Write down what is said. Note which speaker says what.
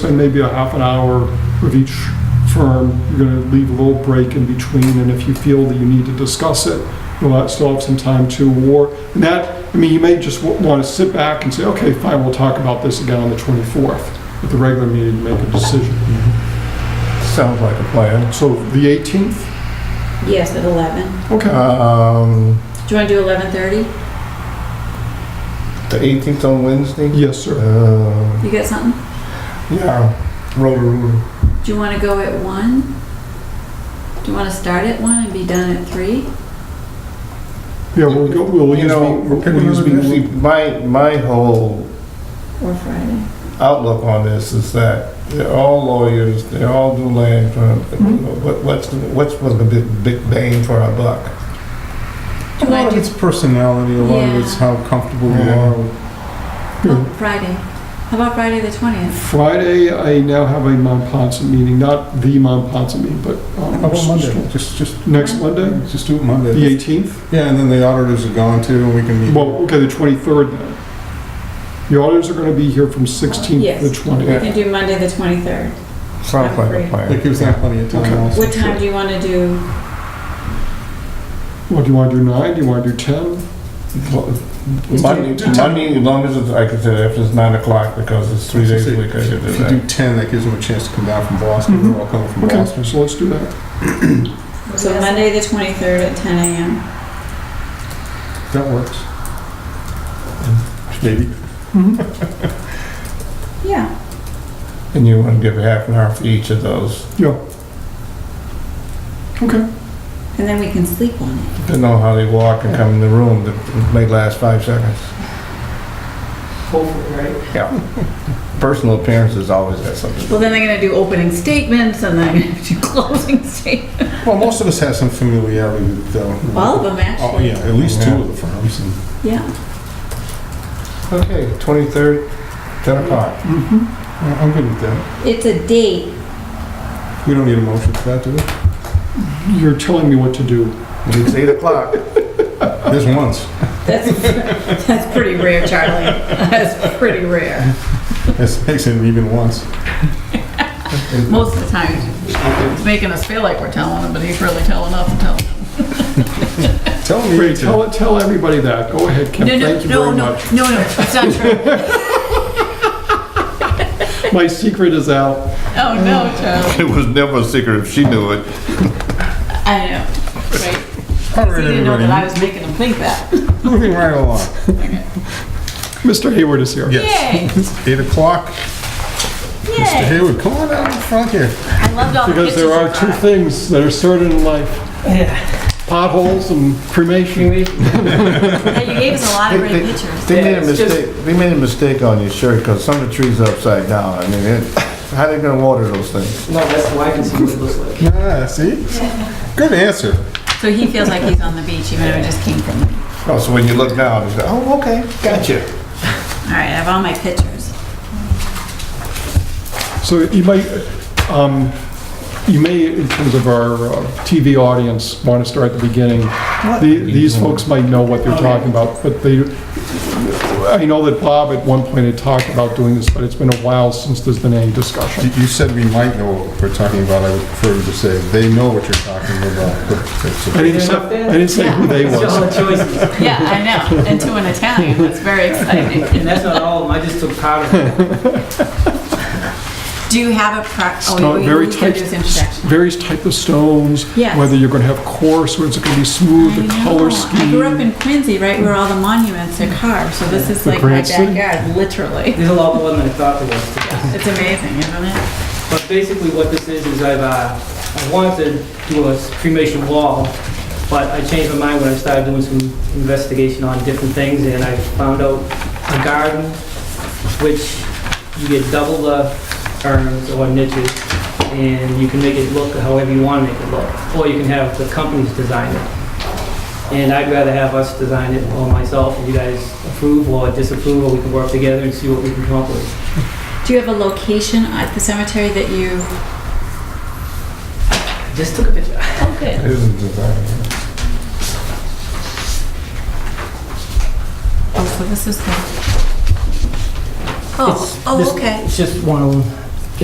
Speaker 1: expecting maybe a half an hour with each firm. You're going to leave a little break in between, and if you feel that you need to discuss it, you'll have- still have some time to, or, and that, I mean, you may just want to sit back and say, okay, fine, we'll talk about this again on the 24th at the regular meeting to make a decision.
Speaker 2: Sounds like a plan.
Speaker 1: So the 18th?
Speaker 3: Yes, at 11.
Speaker 1: Okay.
Speaker 2: Um,
Speaker 3: Do you want to do 11:30?
Speaker 2: the 18th on Wednesday?
Speaker 1: Yes, sir.
Speaker 2: Uh,
Speaker 3: You got something?
Speaker 2: yeah, Roto-Rooter.
Speaker 3: Do you want to go at 1? Do you want to start at 1 and be done at 3?
Speaker 1: Yeah, we'll go, we'll
Speaker 2: You
Speaker 1: use
Speaker 2: know,
Speaker 1: me, we'll use
Speaker 2: see,
Speaker 1: me.
Speaker 2: my, my whole
Speaker 3: Or Friday?
Speaker 2: outlook on this is that they're all lawyers, they all do land firm, but what's, what's the big, big bang for our buck?
Speaker 4: A lot of it's personality, a lot of it's how comfortable you
Speaker 2: Yeah.
Speaker 4: are. with-
Speaker 3: Oh, Friday. How about Friday the 20th?
Speaker 1: Friday, I now have a Mont Ponce meeting, not the Mont Ponce meeting, but. um,
Speaker 4: How about Monday? Just, just,
Speaker 1: Next Monday,
Speaker 4: just do it
Speaker 1: the
Speaker 4: Monday.
Speaker 1: 18th?
Speaker 4: Yeah, and then the auditors are gone too, and we can meet.
Speaker 1: Well, okay, the 23rd then. The auditors are going to be here from 16th to
Speaker 3: Yes.
Speaker 1: 20th.
Speaker 3: We can do Monday the 23rd.
Speaker 2: Sounds like a
Speaker 4: That
Speaker 2: plan.
Speaker 4: gives them plenty of
Speaker 1: Okay.
Speaker 4: time also.
Speaker 3: What time do you want to do?
Speaker 1: Well, do you want to do 9, do you want to do 10?
Speaker 2: Monday, Monday, as long as it's, like I said, if it's nine o'clock, because it's three days a week, I could do
Speaker 4: If you
Speaker 2: that.
Speaker 4: do 10, that gives them a chance to come down from Boston,
Speaker 1: Mhm.
Speaker 4: they're all coming
Speaker 5: Mm-hmm.
Speaker 4: from
Speaker 1: Okay,
Speaker 4: Boston.
Speaker 1: so let's do that.
Speaker 3: So Monday the 23rd at 10 a.m.
Speaker 4: That works.
Speaker 2: Maybe.
Speaker 5: Mm-hmm.
Speaker 3: Yeah.
Speaker 2: And you want to give half an hour for each of those,
Speaker 1: Yeah. Okay,
Speaker 3: And then we can sleep on it.
Speaker 2: depending on how they walk and come in the room, that may last five seconds.
Speaker 5: Hopefully, right?
Speaker 2: Personal appearances always has something.
Speaker 3: Well, then they're going to do opening statements and then they're going to do closing statements.
Speaker 4: Well, most of us have some familiarity with, uh,
Speaker 3: All of them,
Speaker 4: Oh,
Speaker 3: actually.
Speaker 4: yeah, at least two
Speaker 2: Yeah.
Speaker 4: of the firms. and-
Speaker 3: Yeah.
Speaker 2: Okay, 23rd, 10 o'clock.
Speaker 1: Mm-hmm.
Speaker 4: yeah, I'm good with that.
Speaker 3: It's a date.
Speaker 4: We don't need a motion for that, do we?
Speaker 1: you're telling me what to do.
Speaker 2: It's 8 o'clock.
Speaker 4: There's once.
Speaker 3: That's, that's pretty rare, Charlie. That's pretty rare.
Speaker 4: It makes it even once.
Speaker 6: Most of the time, he's making us feel like we're telling him, but he's really telling us to tell.
Speaker 4: Tell me.
Speaker 1: Great, tell, tell everybody that. Go ahead, Kim,
Speaker 6: No, no,
Speaker 1: thank you
Speaker 6: no,
Speaker 1: very
Speaker 6: no,
Speaker 1: much.
Speaker 6: no, no, it's not true.
Speaker 1: My secret is out.
Speaker 6: Oh, no, Charlie.
Speaker 2: It was never a secret if she knew it.
Speaker 6: I know, right?
Speaker 4: All
Speaker 6: He
Speaker 4: right,
Speaker 6: didn't know that I
Speaker 4: everybody,
Speaker 6: was making him think that.
Speaker 4: moving right along.
Speaker 1: Mr. Hayward is here.
Speaker 6: Yay!
Speaker 4: Yes. Eight o'clock. Mr.
Speaker 6: Yay!
Speaker 4: Hayward, come on down in front here.
Speaker 6: I loved all the
Speaker 1: Because
Speaker 6: pictures you
Speaker 1: there are two
Speaker 6: brought.
Speaker 1: things that are certain in life. Potholes and cremation.
Speaker 6: Yeah, you gave us a lot of great
Speaker 2: They- they-
Speaker 6: pictures.
Speaker 2: They made a
Speaker 5: it's just-
Speaker 2: mistake, they made a mistake on your shirt, because some of the trees are upside down. I mean, it- how they gonna water those things?
Speaker 5: No, that's why I can see what it looks like.
Speaker 4: Ah, see? Good answer.
Speaker 6: So he feels like he's on the beach, even though he just came from the beach.
Speaker 2: Oh, so when you look down, you go, oh, okay, gotcha.
Speaker 6: All right, I have all my pictures.
Speaker 1: So you might, um, you may, in terms of our uh, TV audience, want to start at the beginning. The- These folks might know what they're talking about, but they, I know that Bob at one point had talked about doing this, but it's been a while since there's been any discussion.
Speaker 4: You you said we might know what we're talking about. I would prefer you to say they know what you're talking about. but it's
Speaker 1: I
Speaker 4: a-
Speaker 1: didn't say, I didn't say who they
Speaker 5: That's
Speaker 6: oh,
Speaker 5: all
Speaker 1: was.
Speaker 5: the choices,
Speaker 6: Yeah, I know, and to an Italian, that's very exciting.
Speaker 5: and that's not all of them, I just took part of it.
Speaker 6: Do you have a pro, oh,
Speaker 1: Stone-
Speaker 6: we,
Speaker 1: very
Speaker 6: we can
Speaker 1: tight-
Speaker 6: do this introduction.
Speaker 1: Various type of stones,
Speaker 6: Yes.
Speaker 1: whether you're going to have coarse, or it's going to be smooth, the
Speaker 6: I
Speaker 1: color
Speaker 6: know. I grew up
Speaker 1: scheme.
Speaker 6: in Quincy, right where all the monuments are carved, so this is
Speaker 1: The
Speaker 6: like my
Speaker 1: Grand City.
Speaker 6: backyard, literally.
Speaker 5: There's a lot more than I thought there was to this.
Speaker 6: It's amazing, isn't it?
Speaker 5: But basically what this is, is I've, uh, I wanted to do a cremation wall, but I changed my mind when I started doing some investigation on different things, and I found out a garden, which you get double the urns or niches, and you can make it look however you want to make it look, or you can have the companies design it. And I'd rather have us design it, or myself, if you guys approve or disapprove, or we can work together and see what we can come up with.
Speaker 3: Do you have a location at the cemetery that you?
Speaker 5: Just took a picture.
Speaker 3: Oh, good.
Speaker 2: It isn't designed.
Speaker 6: Oh, so this is the. Oh,
Speaker 5: It's- this-
Speaker 6: oh, okay. Oh,
Speaker 5: It's just one of them.